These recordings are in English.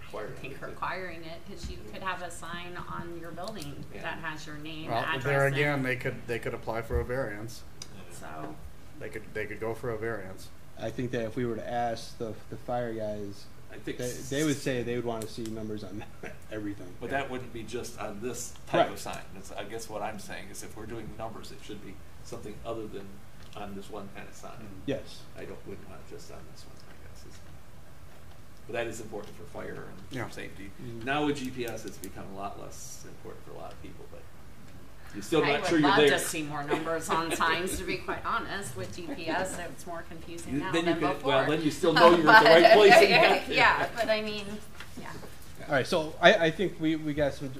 requiring. think it. requiring it, cause you could have a sign on your building Yeah. that has your name, Well, address. there and- again, they could, they could apply for a variance. Yeah. So, They could, they could go for a variance. I think that if we were to ask the, the fire guys, I think. they, they would say they would want to see numbers on everything. But that wouldn't be just on this type of Right. sign. That's, I guess what I'm saying is if we're doing numbers, it should be something other than on this one kind of Mm. sign. Yes. I don't, wouldn't want it just on this one, I guess. is- But that is important for fire Yeah. and safety. Mhm. Now with GPS, it's become a lot less important for a lot of people, but you're still I not sure would you're love to there. see more numbers on signs, to be quite honest, with GPS, it's more confusing You- now then than you before. could- well, then you still know you're at the right But- place and you got there. Yeah, but I mean, yeah. All right, so I, I think we, we got some.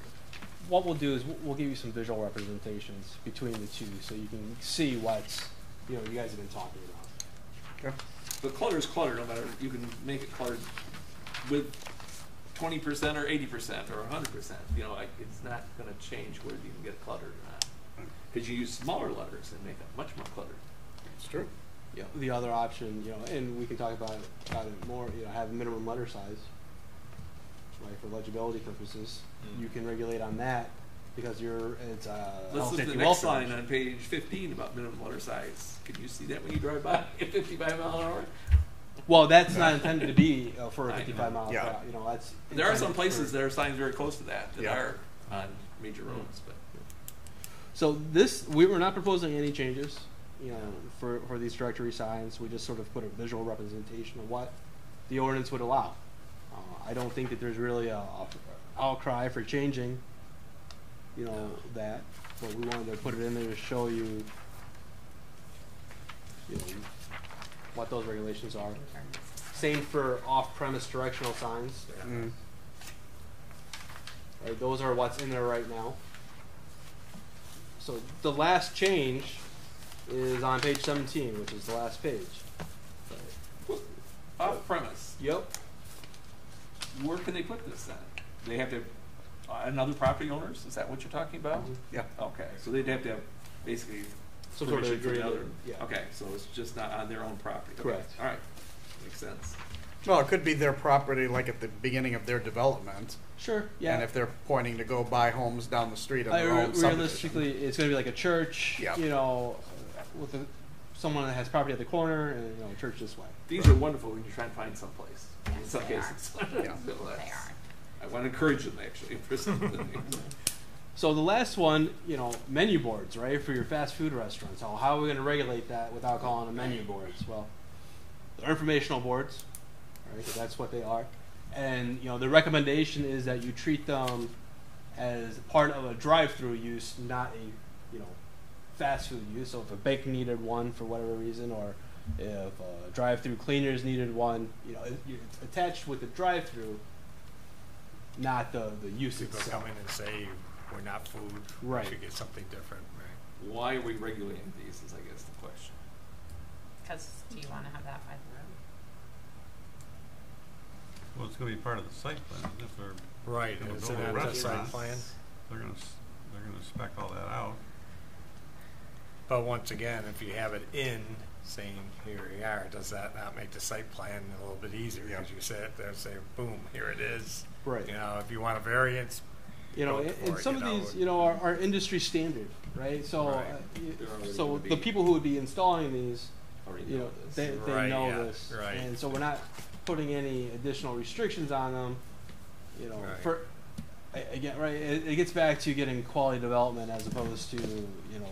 What we'll do is we'll- we'll give you some visual representations between the two, so you can see what's you know you guys have been talking about. Okay. But clutter is clutter, no matter, you can make it cluttered with twenty percent or eighty percent or hundred percent, you know, like, it's not gonna change whether you can get cluttered or not. Cause you use smaller letters and make it much more cluttered. It's true. Yeah. The other option, you know, and we can talk about it, about it more. You know, have a minimum letter size, right, for legibility purposes. Mm. You can regulate on that because you're it's uh, Let's health look at the safety next welfare line option. on page fifteen about minimum letter size. Can you see that when you drive by at fifty-five mile an hour? Well, that's not intended to be uh, for a I know. 55 mile. Yeah. route, You know, that's There are intended some places for- that are signs very close to that, that Yeah. are on major roads, but. So this, we were not proposing any changes, you know, for, for these directory signs. We just sort of put a visual representation of what the ordinance would allow. Uh, I don't think that there's really a, a outcry for changing, you know, that, but we wanted to put it in there to show you, you know, what those regulations are. Same for off-premise directional signs. Mm. Right, those are what's in there right now. So the last change is on page 17, which is the last page. Off premise, Yep. where can they put this then? They have to, uh, another property owners, is that what you're talking about? Yeah. Okay, so they'd have to have basically Some sort of permission from the agreement, other. yeah. Okay, so it's just not on their own property. Okay, Correct. All right, makes sense. Well, it could be their property, like at the beginning of their development. Sure. Yeah. And if they're pointing to go buy homes down the street on I- their own realistically, subdivision. it's going to be like a church, Yeah. you know, with a, someone that has property at the corner and you know, a church this way. These are wonderful when you're trying to find someplace, in Yes, some they are. cases. Yeah. So They that's- are. I want to encourage them actually for some of the things. So the last one, you know, menu boards, right, for your fast food restaurants. How, how are we going to regulate that without calling them menu boards? Well, they're informational boards, right? 'cause that's what they are. And you know, the recommendation is that you treat them as part of a drive-through use, not a you know fast food use. So if a bank needed one for whatever reason, or if a drive-through cleaners needed one, you know, it, it's attached with the drive-through, not the the use People itself. come in and say, we're not food. Right. We should get something different, right? Why are we regulating these is I guess the question. Cause do you wanna have that by the road? Well, it's gonna be part of the site plan, isn't it? If they're, Right, Yeah, it's but an all after site restaurants- plan. they're gonna, s- they're gonna spec all that out. But once again, if you have it in, saying, here we are, does that not make the site plan a little bit easier? Yeah. Because you sit there and say, boom, here it is. Right. You know, if you want a variance, you know, Look and, for and it, some you of know. these, you know, are, are industry standard, right? So, Right. uh, y- They're already so gonna the be- people who would be installing these, Already you know, this. they, they Right, know yeah, this, right. and so we're not putting any additional restrictions on them. You know, Right. for a- again, right? It, it gets back to getting quality development as opposed to you know,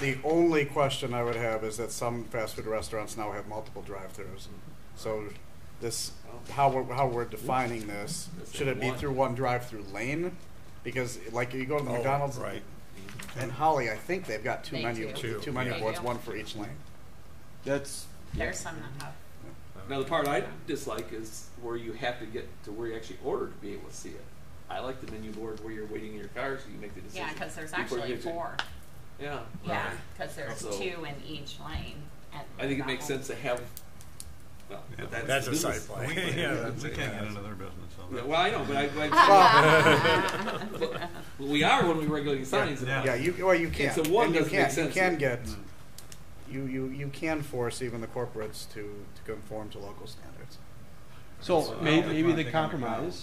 The only question I would have is that some fast food restaurants now have multiple drive-throughs. So this, how we're, how we're defining this, That's should it be one. through one drive-through lane? Because like you go to the Oh, McDonald's right. Mm-hmm. and Holly, I think they've got two They menu, do. Two, two menu yeah. boards, one for each lane. that's There's some that have, Now, the part I dislike is where you have to get to where you actually order to be able to see it. I like the menu board where you're waiting in your car so you make the decision. yeah, cause there's before you actually get to- four, Yeah. yeah, cause there's So- two in each lane at I think it that makes whole- sense to have, well, Yeah. but that's. That's the a business. site plan. We Yeah, can't get- that's we it, can't yeah. get into their business, so. Yeah, that- Well, I know, but I, I, but we are when we regulate signs. and all. Yeah, you, well, you can. so one And you doesn't can, make you sense. can get, you, you, you can force even the corporates to, to conform to local standards. So Well, may, I maybe think I'm the a cop. compromise